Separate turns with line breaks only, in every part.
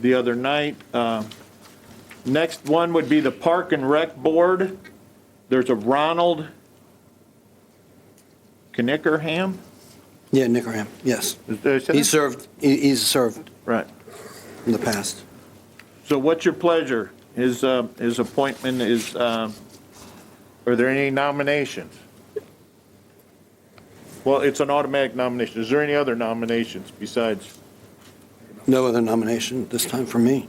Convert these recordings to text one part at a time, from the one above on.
the other night. Uh, Next one would be the Park and Rec Board. There's a Ronald Knickerham?
Yeah, Nickerham, yes.
Is that- is that
He
it?
served, he- he's served
Right.
in the past.
So what's your pleasure? His, uh, his appointment is, um, are there any nominations? Well, it's an automatic nomination. Is there any other nominations besides?
No other nomination this time for me.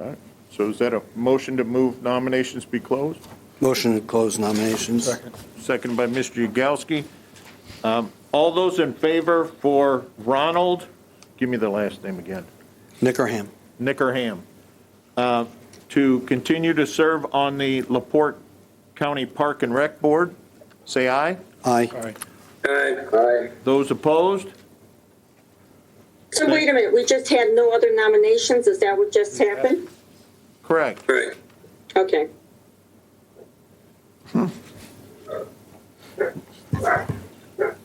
all right. So is that a motion to move nominations be closed?
Motion to close nominations.
Second by Mr. Yagowski. Um, All those in favor for Ronald, give me the last name again,
Nickerham,
Nickerham, uh, to continue to serve on the Laporte County Park and Rec Board, say aye.
aye.
Aye. Aye.
Those opposed?
So wait a minute, we just had no other nominations, is that what just happened?
Correct.
Right.
Okay.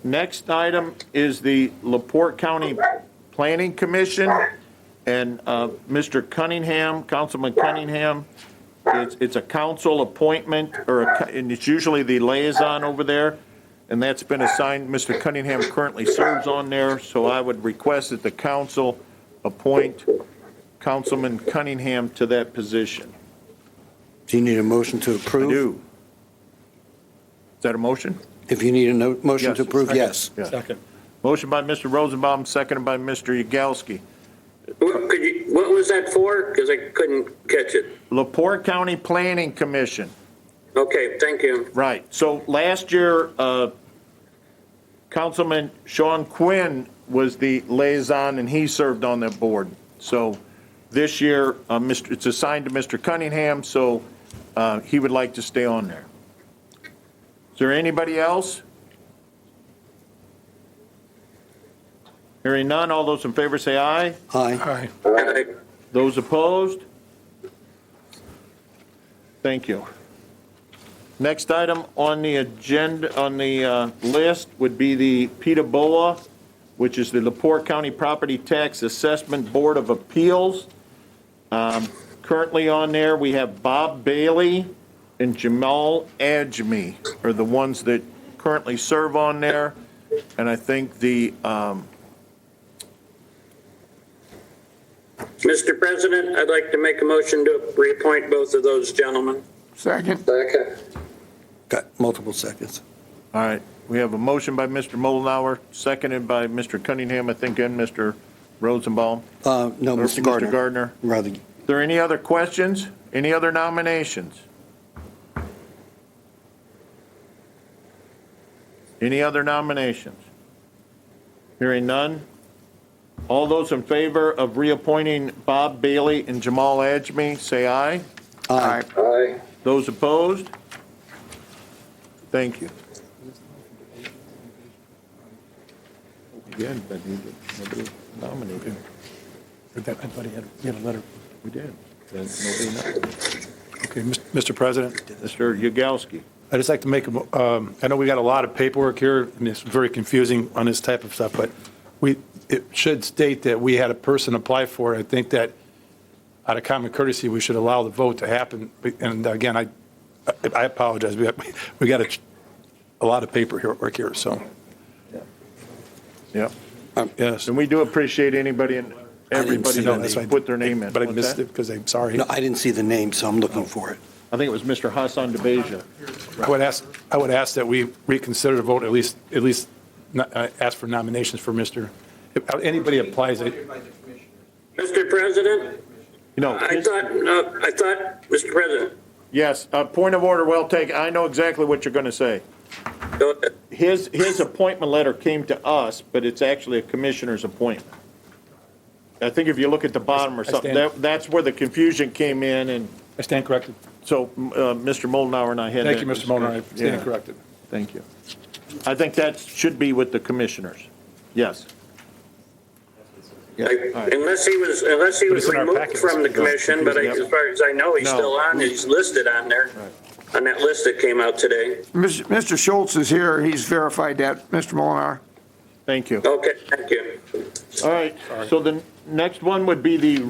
Next item is the Laporte County Planning Commission, and uh, Mr. Cunningham, Councilman Cunningham, it's, it's a council appointment, or, a co- and it's usually the liaison over there, and that's been assigned, Mr. Cunningham currently serves on there, so I would request that the council appoint Councilman Cunningham to that position.
Do you need a motion to approve?
Do. Is that a motion?
If you need a no- motion to
Yes.
approve, yes.
Yeah. Motion by Mr. Rosenbaum, seconded by Mr. Yagowski.
What, could you, what was that for? Because I couldn't catch it.
Lepore County Planning Commission,
Okay, thank you.
right. So last year, uh, Councilman Sean Quinn was the liaison, and he served on that board. So this year, uh, Mr. it's assigned to Mr. Cunningham, so uh, he would like to stay on there. Is there anybody else? Hearing none, all those in favor say aye.
Aye.
Aye.
Those opposed? Thank you. Next item on the agenda, on the uh, list would be the PETA which is the Lepore County Property Tax Assessment Board of Appeals. Um, Currently on there, we have Bob Bailey and Jamal Ajmi are the ones that currently serve on there. And I think the, um,
Mr. President, I'd like to make a motion to reappoint both of those gentlemen.
Second.
Second.
Got multiple seconds.
All right, we have a motion by Mr. Mullenhour, seconded by Mr. Cunningham, I think, and Mr. Rosenbaum.
Uh, No,
Or
Mr. Gardner.
Mr. Gardner.
Rather,
Are there any other questions? Any other nominations? Any other nominations? Hearing none? All those in favor of reappointing Bob Bailey and Jamal Ajmi, say aye.
aye.
Aye.
Those opposed? Thank you. Again, but he- nobody nominated.
I thought he had, he had a letter.
We did. Then nobody nominated.
Okay, Mis- Mr. President,
Mr. Yagowski.
I'd just like to make, a mo- um, I know we got a lot of paperwork here, and it's very confusing on this type of stuff, but we, it should state that we had a person apply for it. I think that out of common courtesy, we should allow the vote to happen. And again, I, I apologize, we got, we got a, a lot of paper here, work here, so,
Yep.
yes.
And we do appreciate anybody and everybody
see that. That's
that put their name in.
But I
What's
missed
that?
it because I'm sorry.
No, I didn't see the name, so I'm looking for it.
I think it was Mr. Hassan DeBeja.
I would ask, I would ask that we reconsider the vote, at least, at least no- uh, ask for nominations for Mr., if anybody applies, I-
Mr. President,
You know,
I thought, uh, I thought, Mr. President,
yes, uh, point of order, well taken. I know exactly what you're going to say.
go ahead.
His, his appointment letter came to us, but it's actually a commissioner's appointment. I think if you look at the bottom or
I
something,
stand-
that, that's where the confusion came in, and
I stand corrected.
so, uh, Mr. Moldenauer and I had.
Thank
that
you, Mr. Mulner, I
discussion.
stand
Yeah,
corrected.
Thank you. I think that should be with the commissioners. Yes. Yeah, all right.
Unless he was, unless he
But
was
it's in our
removed
packets.
from the commission, but I-
Yep.
as far as I know, he's
No.
still on, he's listed on there, on that list that came out today.
Mis- Mr. Schultz is here. He's verified that, Mr. Molinar.
Thank you.
Okay, thank you.
All right, so the next one would be the